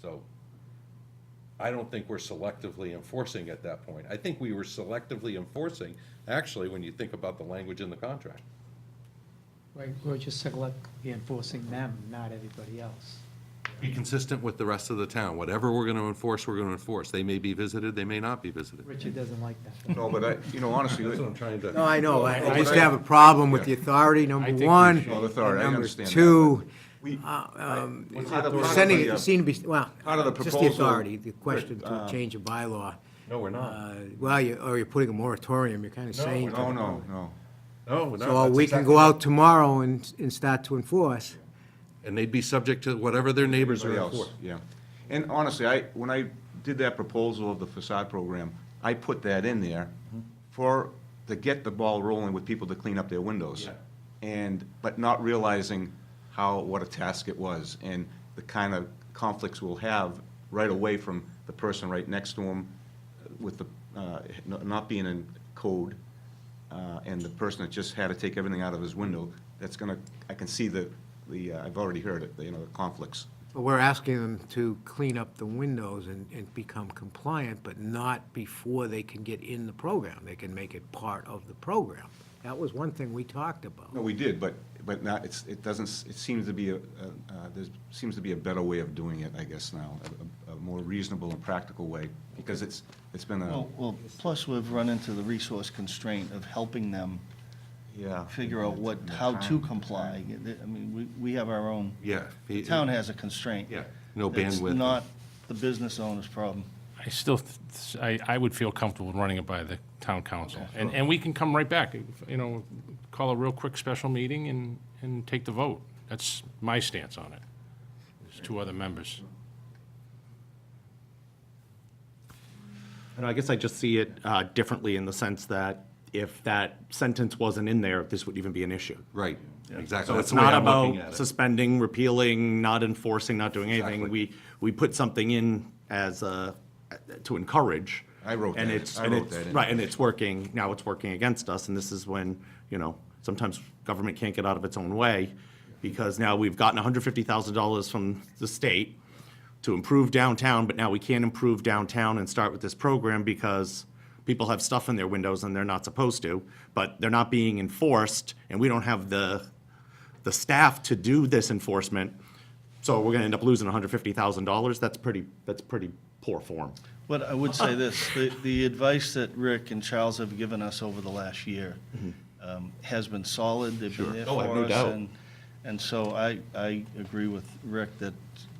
So I don't think we're selectively enforcing at that point. I think we were selectively enforcing, actually, when you think about the language in the contract. Right, we're just selectively enforcing them, not everybody else. Be consistent with the rest of the town. Whatever we're going to enforce, we're going to enforce. They may be visited, they may not be visited. Richard doesn't like that. No, but I, you know, honestly, That's what I'm with trying No, to, I know, I I Well, just I- have a problem with the authority, I number think we one. should- Well, authority, I and understand that, Number two, we, um, Well, part of- we're part of sending, the, uh, it seem to be, well, part of the just the proposal- authority, the question to Uh, change a bylaw. no, we're not. Uh, Well, you, or you're putting a moratorium, you're kind of No, saying. no, no, no. No, no. So that's we can exactly- go out tomorrow and, and start to enforce. And they'd be subject to whatever their neighbors are Everybody else, enforcing. yeah. And honestly, I, when I did that proposal of the facade program, I put that in there Mm-hmm. for, to get the ball rolling with people to clean up their windows. Yeah. And, but not realizing how, what a task it was, and the kind of conflicts we'll have right away from the person right next to them with the, uh, n- not being in code, uh, and the person that just had to take everything out of his window, that's gonna, I can see the, the, uh, I've already heard it, the, you know, the conflicts. But we're asking them to clean up the windows and, and become compliant, but not before they can get in the program. They can make it part of the program. That was one thing we talked about. No, we did, but, but not, it's, it doesn't, s- it seems to be, a- a- uh, there seems to be a better way of doing it, I guess, now, a- a, a more reasonable and practical way, because it's, it's been a, Well, well, plus we've run into the resource constraint of helping them yeah. figure out what, how to comply. I mean, we, we have our own, Yeah. the town has a constraint. Yeah, no That's bandwidth. not the business owner's problem. I still, th- I, I would feel comfortable running it by the town council. And, and we can come right back, you know, call a real quick special meeting and, and take the vote. That's my stance on it. There's two other members. And I guess I just see it uh, differently in the sense that if that sentence wasn't in there, this would even be an issue. Right, exactly. So That's it's the way not I'm looking at about it. suspending, repealing, not enforcing, not doing anything. Exactly. We, we put something in as a, to encourage. I wrote and that in. it's- I and wrote it's- that in. Right, and it's working, now it's working against us, and this is when, you know, sometimes government can't get out of its own way, because now we've gotten hundred fifty thousand dollars from the state to improve downtown, but now we can't improve downtown and start with this program because people have stuff in their windows and they're not supposed to, but they're not being enforced, and we don't have the, the staff to do this enforcement, so we're gonna end up losing hundred fifty thousand dollars, that's pretty, that's pretty poor form. But I would say this, the, the advice that Rick and Charles have given us over the last year um, has been solid, they've been there Mm-hmm. Oh, I have no for us. doubt. and- And so I, I agree with Rick that,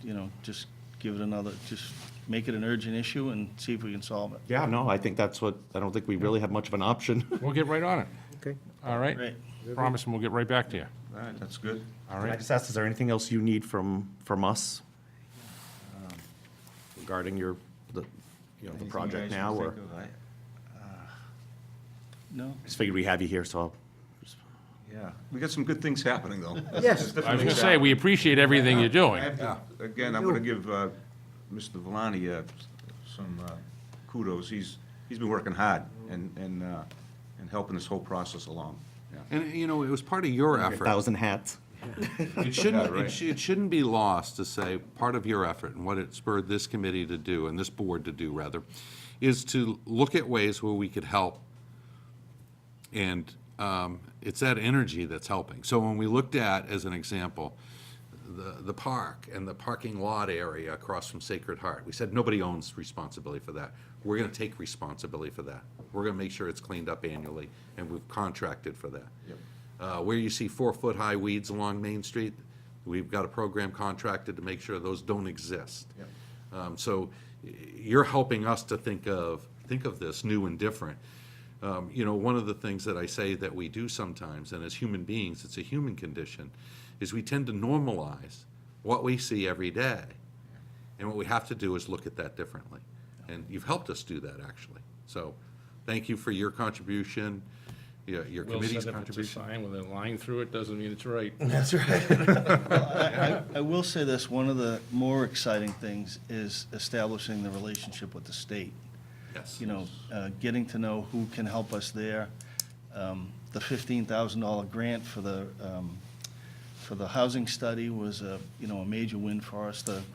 you know, just give it another, just make it an urgent issue and see if we can solve it. Yeah, no, I think that's what, I don't think we really have much of an option. We'll get right on it. Okay. All right? Great. Promise, and we'll get right back to you. All right, that's good. All I right? just asked, is there anything else you need from, from us um, regarding your, the, you know, the Anything project you guys now, can or? think of, I- No? Just figured we have you here, so I'll- Yeah, we got some good things happening, though. That's- that's Yes. I was definitely gonna say, we appreciate everything you're I doing. have to- Again, I'm gonna give uh, Mr. Valani uh, some uh, kudos, he's, he's been working hard and, and, uh, and helping this whole process along, yeah. And, you know, it was part of your a effort. thousand hats. It shouldn't, Yeah, right. it sh- it shouldn't be lost to say, part of your effort and what it spurred this committee to do, and this board to do, rather, is to look at ways where we could help. And um, it's that energy that's helping. So when we looked at, as an example, the, the park and the parking lot area across from Sacred Heart, we said, nobody owns responsibility for that. We're gonna take responsibility for that. We're gonna make sure it's cleaned up annually, and we've contracted for that. Uh, Where you see four-foot-high weeds along Main Street, we've got a program contracted to make sure those don't exist. Um, So y- you're helping us to think of, think of this new and different. Um, You know, one of the things that I say that we do sometimes, and as human beings, it's a human condition, is we tend to normalize what we see every day. And what we have to do is look at that differently. And you've helped us do that, actually. So thank you for your contribution, your your Will committee's said if it's a contribution. sign with a line through it, doesn't mean it's right. I I will say this, one of the more exciting things is establishing the relationship with the state. Yes. You know, uh, getting to know who can help us there. Um, The $15,000 grant for the, um, for the housing study was a, you know, a major win for us. The